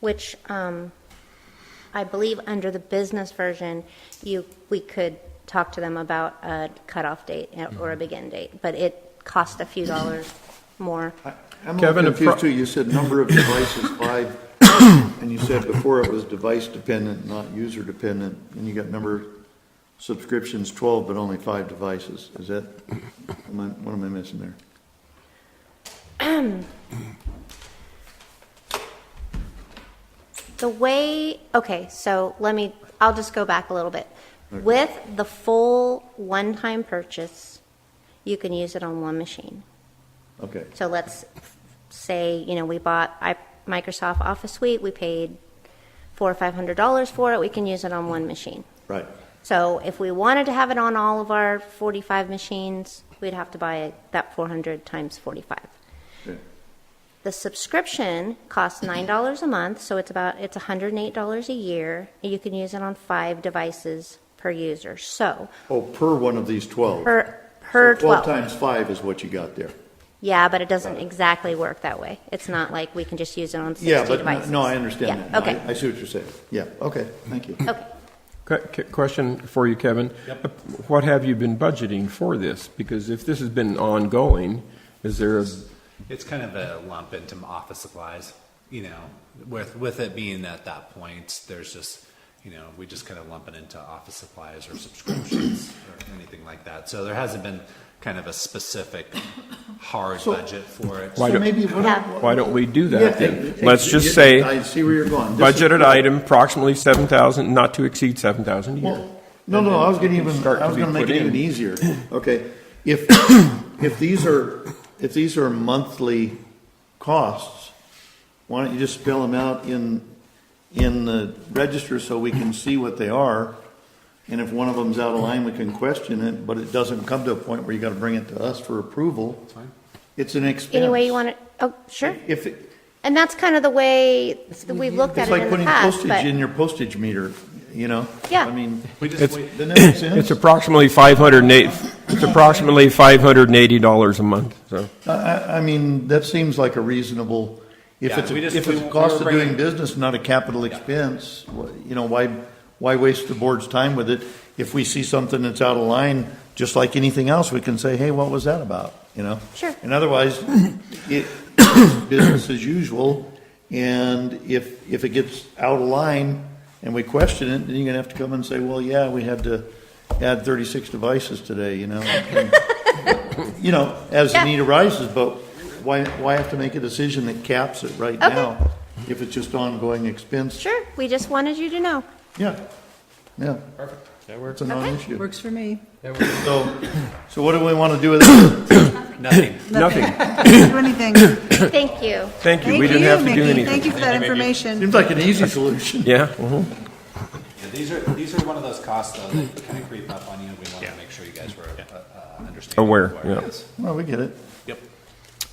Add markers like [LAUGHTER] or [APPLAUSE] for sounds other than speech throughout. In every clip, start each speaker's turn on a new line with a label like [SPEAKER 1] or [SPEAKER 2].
[SPEAKER 1] which um, I believe under the business version, you, we could talk to them about a cutoff date or a begin date, but it cost a few dollars more.
[SPEAKER 2] I'm a
[SPEAKER 3] Kevin,
[SPEAKER 2] little
[SPEAKER 3] a pro-
[SPEAKER 2] confused too. You said number of devices, five, and you said before it was device dependent, not user dependent. And you got number subscriptions, 12, but only five devices. Is that, am I, what am I missing there?
[SPEAKER 1] The way, okay, so let me, I'll just go back a little bit. With the full one-time purchase, you can use it on one machine.
[SPEAKER 2] Okay,
[SPEAKER 1] So let's say, you know, we bought I- Microsoft Office Suite, we paid four or five hundred dollars for it, we can use it on one machine.
[SPEAKER 2] right.
[SPEAKER 1] So if we wanted to have it on all of our forty-five machines, we'd have to buy that four hundred times forty-five.
[SPEAKER 2] Okay.
[SPEAKER 1] The subscription costs nine dollars a month, so it's about it's one hundred and eight dollars a year. and You can use it on five devices per user. So
[SPEAKER 2] Oh, per one of these 12.
[SPEAKER 1] per per
[SPEAKER 2] So
[SPEAKER 1] twelve.
[SPEAKER 2] 12 times five is what you got there.
[SPEAKER 1] Yeah, but it doesn't exactly work that way. It's not like we can just use it on sixty
[SPEAKER 2] Yeah, but no-
[SPEAKER 1] devices.
[SPEAKER 2] no, I understand
[SPEAKER 1] Yeah,
[SPEAKER 2] that. No, I-
[SPEAKER 1] okay.
[SPEAKER 2] I see what you're saying. Yeah, okay, thank you.
[SPEAKER 1] okay.
[SPEAKER 3] Que- que- Question for you, Kevin. What have you been budgeting for this? Because if this has been ongoing, is there a,
[SPEAKER 4] It's kind of a lump into m- office supplies, you know, with, with it being at that point, there's just, you know, we just kind of lump it into office supplies or subscriptions or anything like that. So there hasn't been kind of a specific hard budget for it.
[SPEAKER 3] Why
[SPEAKER 2] So
[SPEAKER 3] don't-
[SPEAKER 2] maybe what I-
[SPEAKER 1] Yeah.
[SPEAKER 3] why don't we do
[SPEAKER 2] Yeah,
[SPEAKER 3] that then?
[SPEAKER 2] ex-
[SPEAKER 3] Let's
[SPEAKER 2] ex-
[SPEAKER 3] just
[SPEAKER 2] I
[SPEAKER 3] say,
[SPEAKER 2] see where you're going. This is-
[SPEAKER 3] budgeted item approximately 7,000, not to exceed 7,000 a year.
[SPEAKER 2] Well, No, no, I was gonna even,
[SPEAKER 3] Start
[SPEAKER 2] I
[SPEAKER 3] to
[SPEAKER 2] was
[SPEAKER 3] be
[SPEAKER 2] gonna make
[SPEAKER 3] put
[SPEAKER 2] it even
[SPEAKER 3] in. [LAUGHS]
[SPEAKER 2] easier. Okay, if, if these are, if these are monthly costs, why don't you just spell them out in, in the register so we can see what they are? And if one of them's out of line, we can question it, but it doesn't come to a point where you gotta bring it to us for approval. It's an expense.
[SPEAKER 1] Any way you want to? Oh, sure.
[SPEAKER 2] If, it-
[SPEAKER 1] And that's kind of the way that we've looked at
[SPEAKER 2] it's
[SPEAKER 1] it
[SPEAKER 2] like
[SPEAKER 1] in the
[SPEAKER 2] putting
[SPEAKER 1] past,
[SPEAKER 2] postage in
[SPEAKER 1] but
[SPEAKER 2] your postage meter, you know?
[SPEAKER 1] Yeah.
[SPEAKER 2] I mean,
[SPEAKER 4] We just,
[SPEAKER 3] It's-
[SPEAKER 4] wait-
[SPEAKER 2] doesn't that make sense?
[SPEAKER 3] It's approximately 508, it's approximately $580 a month, so.
[SPEAKER 2] I, I- I mean, that seems like a reasonable, if
[SPEAKER 4] Yeah,
[SPEAKER 2] it's, a-
[SPEAKER 4] we just-
[SPEAKER 2] if
[SPEAKER 4] we-
[SPEAKER 2] it's a
[SPEAKER 4] we
[SPEAKER 2] cost
[SPEAKER 4] were
[SPEAKER 2] of doing
[SPEAKER 4] bringing-
[SPEAKER 2] business, not a capital expense, wh- you know, why, why waste the board's time with it? If we see something that's out of line, just like anything else, we can say, hey, what was that about, you know?
[SPEAKER 1] Sure.
[SPEAKER 2] And otherwise, it, it's business as usual, and if, if it gets out of line and we question it, then you're gonna have to come and say, well, yeah, we had to add thirty-six devices today, you know? [LAUGHS] And- you know, as the
[SPEAKER 1] Yeah.
[SPEAKER 2] need arises, but why, why have to make a decision that caps it right
[SPEAKER 1] Okay.
[SPEAKER 2] now? If it's just ongoing expense?
[SPEAKER 1] sure. We just wanted you to know.
[SPEAKER 2] Yeah, yeah. Perfect. That works. It's a non-issue.
[SPEAKER 5] Works for [COUGHS] me.
[SPEAKER 2] So, so what do we want to do with it?
[SPEAKER 4] nothing.
[SPEAKER 3] Nothing.
[SPEAKER 5] Do anything.
[SPEAKER 1] Thank you.
[SPEAKER 3] Thank you.
[SPEAKER 5] Thank
[SPEAKER 3] We didn't have to do
[SPEAKER 5] Mickey.
[SPEAKER 3] anything.
[SPEAKER 5] Thank you for that information.
[SPEAKER 2] Seems like an easy solution. [LAUGHS]
[SPEAKER 3] Yeah, mhm.
[SPEAKER 4] Yeah, These are, these are one of those costs though, that kind of creep up on you. We want to make sure you guys were, uh, uh, understanding.
[SPEAKER 3] Aware, yeah.
[SPEAKER 2] Well, we get it.
[SPEAKER 4] Yep.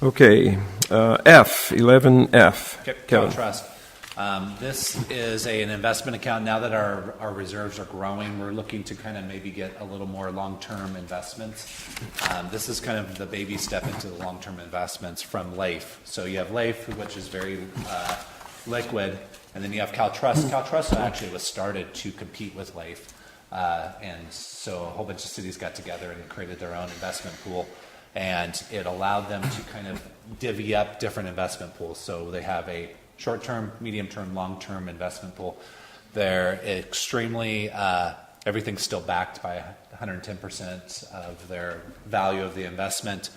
[SPEAKER 3] Okay, uh, F, 11F.
[SPEAKER 4] Cal
[SPEAKER 3] Kevin.
[SPEAKER 4] Trust. Um, This is a- an investment account. Now that our, our reserves are growing, we're looking to kind of maybe get a little more long-term investments. Um, This is kind of the baby step into the long-term investments from LAIF. So you have LAIF, which is very uh, liquid, and then you have CalTrust. CalTrust actually was started to compete with LAIF. Uh, And so a whole bunch of cities got together and created their own investment pool and it allowed them to kind of divvy up different investment pools. So they have a short-term, medium-term, long-term investment pool. They're extremely, uh, everything's still backed by 110% of their value of the investment.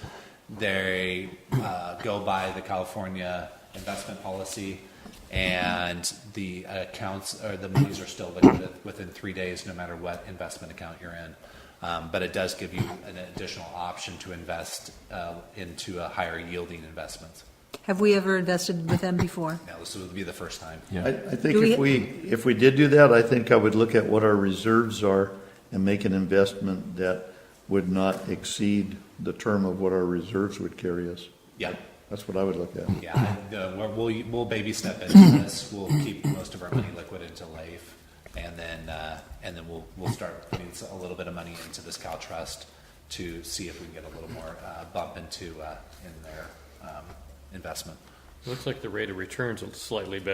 [SPEAKER 4] They uh, go by the California investment policy, and the accounts or the monies are still liquid within three days, no matter what investment account you're in. Um, but it does give you an additional option to invest uh, into a higher yielding investments.
[SPEAKER 5] Have we ever invested with them before?
[SPEAKER 4] Now, this would be the first time.
[SPEAKER 2] I, I think
[SPEAKER 5] Do
[SPEAKER 2] if we,
[SPEAKER 5] we-
[SPEAKER 2] if we did do that, I think I would look at what our reserves are and make an investment that would not exceed the term of what our reserves would carry us.
[SPEAKER 4] Yeah.
[SPEAKER 2] That's what I would look at.
[SPEAKER 4] Yeah, I- the- we're- we'll, we'll baby step into this. We'll keep most of our money liquid into life, and then uh, and then we'll we'll start putting a little bit of money into this Cal Trust to see if we can get a little more uh, bump into uh, in their um, investment.
[SPEAKER 6] Looks like the rate of return's slightly better